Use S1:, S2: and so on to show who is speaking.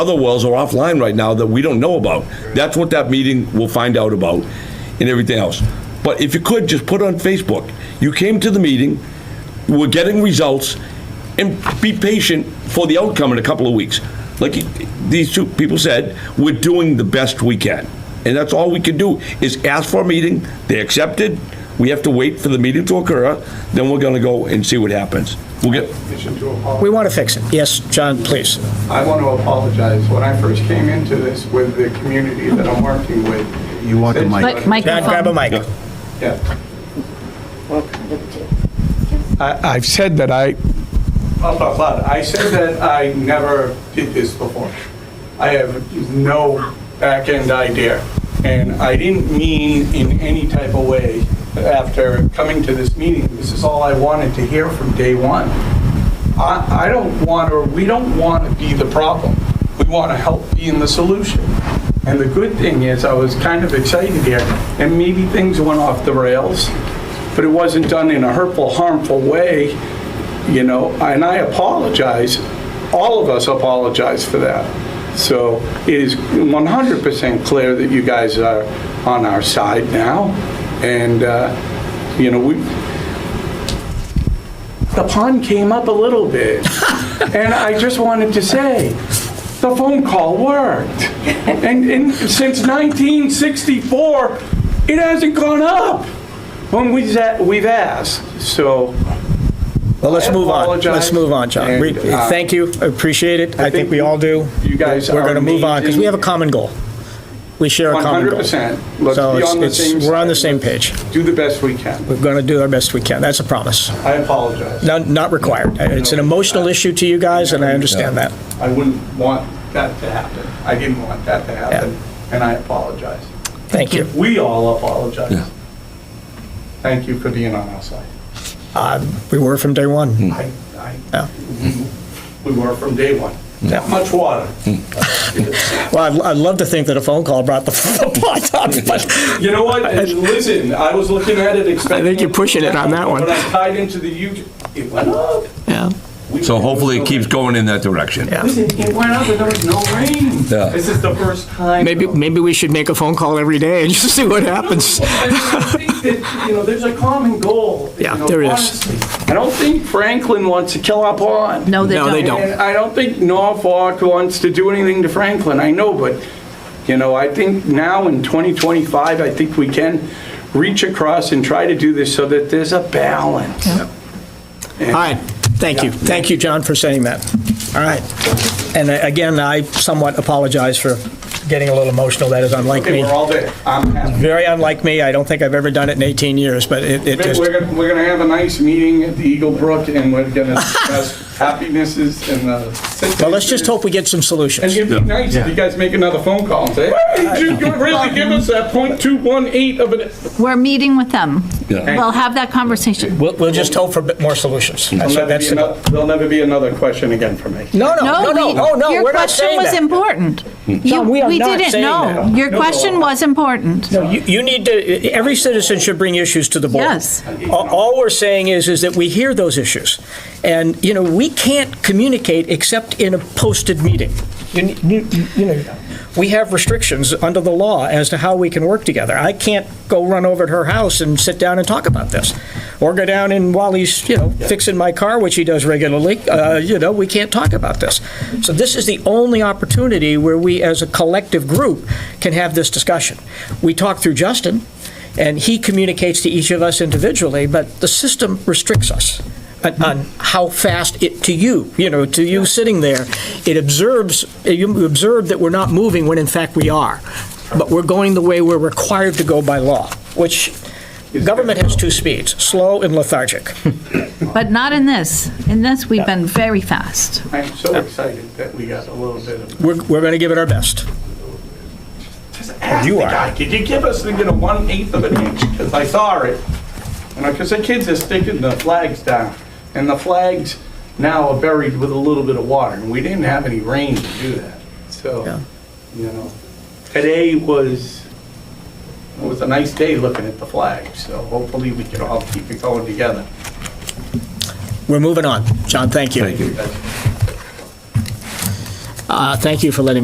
S1: other wells are offline right now that we don't know about. That's what that meeting will find out about and everything else. But if you could, just put on Facebook, you came to the meeting, we're getting results, and be patient for the outcome in a couple of weeks. Like these two people said, we're doing the best we can. And that's all we can do is ask for a meeting, they accepted, we have to wait for the meeting to occur, then we're gonna go and see what happens. We'll get,
S2: permission to apologize.
S3: We want to fix it. Yes, John, please.
S2: I want to apologize. When I first came into this with the community that I'm working with.
S4: You want the mic.
S2: said-
S5: Mi- mic-
S3: John, grab a mic.
S2: Yeah.
S6: I- I've said that I,
S2: Blah, blah, blah. I said that I never did this before. I have no back-end idea. And I didn't mean in any type of way after coming to this meeting. This is all I wanted to hear from day one. I, I don't want, or we don't want to be the problem. We want to help be in the solution. And the good thing is, I was kind of excited here, and maybe things went off the rails, but it wasn't done in a hurtful, harmful way, you know, and I apologize. All of us apologize for that. So it is 100% clear that you guys are on our side now, and, uh, you know, we, the pun came up a little bit. and I just wanted to say, the phone call worked. And, and since 1964, it hasn't gone up when we, sa- we've asked. So
S3: Well, let's
S2: I
S3: move on. Let's
S2: apologize.
S3: move on, John. We-
S2: And, uh,
S3: Thank you, I appreciate it. I think we all do.
S2: you guys
S3: We're
S2: are
S3: going to move on because we have a
S2: amazing.
S3: common goal. We share a common goal.
S2: 100%. Let's
S3: So
S2: be
S3: it's-
S2: on the
S3: it's-
S2: same
S3: We're on the
S2: side.
S3: same page.
S2: do the best we can.
S3: We're going to do our best we can. That's a promise.
S2: I apologize.
S3: No- Not required. It's an emotional issue to you guys, and I understand that.
S2: I wouldn't want that to happen. I didn't want that to happen, and I apologize.
S3: Thank you.
S2: We all apologize. Thank you for being on our side.
S3: Uh, We were from day one.
S2: I, I,
S3: Yeah.
S2: we were from day one. That much water.
S3: Well, I'd- I'd love to think that a phone call brought the- the pot up, but
S2: You know what? And Listen, I was looking at it expecting.
S3: I think you're pushing it on that one.
S2: When I tied into the huge, it went up.
S3: Yeah.
S2: We-
S1: so hopefully it keeps going in that direction.
S3: Yeah.
S2: Listen, it went up and there was no rain.
S1: Yeah.
S2: This is the first time.
S3: maybe, maybe we should make a phone call every day and just see what happens.
S2: I think that, You know, there's a common goal. you
S3: Yeah,
S2: know,
S3: there is.
S2: honestly. I don't think Franklin wants to kill our pond.
S5: No, they
S3: No, they
S5: don't.
S3: don't.
S2: And I don't think Norfolk wants to do anything to Franklin, I know, but, you know, I think now in 2025, I think we can reach across and try to do this so that there's a balance.
S3: All right, thank you. Thank you, John, for saying that. All right. And uh, again, I somewhat apologize for getting a little emotional. That is unlike
S2: Okay,
S3: me.
S2: we're all there, I'm happy.
S3: Very unlike me. I don't think I've ever done it in 18 years, but it it just,
S2: We're gonna, we're gonna have a nice meeting at the Eagle Brook, and we're gonna discuss happinesses and the.
S3: well, let's just hope we get some
S2: And
S3: solutions.
S2: it'd be nice if you guys make another phone call and say, hey, did you really give us that .218 of an,
S5: We're meeting with them.
S1: Yeah.
S5: We'll have that conversation.
S3: We'll we'll just hope for a bit more solutions. That's
S2: there'll never be
S3: that's the goal.
S2: ano- there'll never be another question again for me.
S3: No, no, no,
S5: we-
S3: no, oh, no, we're not saying
S5: Your question was
S3: that. Hmm.
S5: important. You-
S3: we are not
S5: didn't
S3: saying
S5: know.
S3: that.
S5: Your question was important.
S3: You- You need to, every citizen should bring issues to the board.
S5: Yes.
S3: All- All we're saying is, is that we hear those issues. And, you know, we can't communicate except in a posted meeting. You, you, you know, we have restrictions under the law as to how we can work together. I can't go run over to her house and sit down and talk about this. Or go down and while he's, you know, fixing my car, which he does regularly, uh, you know, we can't talk about this. So this is the only opportunity where we, as a collective group, can have this discussion. We talk through Justin, and he communicates to each of us individually, but the system restricts us on, on how fast it, to you, you know, to you sitting there, it observes, you observe that we're not moving when in fact we are, but we're going the way we're required to go by law, which government has two speeds, slow and lethargic.
S5: But not in this. In this, we've been very fast.
S2: I'm so excited that we got a little bit of.
S3: We're, we're going to give it our best.
S2: Just ask
S3: You
S2: the
S3: are.
S2: guy, could you give us the, you know, one eighth of an inch? Because I saw it. You know, because the kids are sticking the flags down, and the flags now are buried with a little bit of water, and we didn't have any rain to do that.
S3: Yeah.
S2: So, you know, today was, it was a nice day looking at the flags, so hopefully we can all keep it going together.
S3: We're moving on. John, thank you.
S1: Thank you.
S3: Uh, Thank you for letting me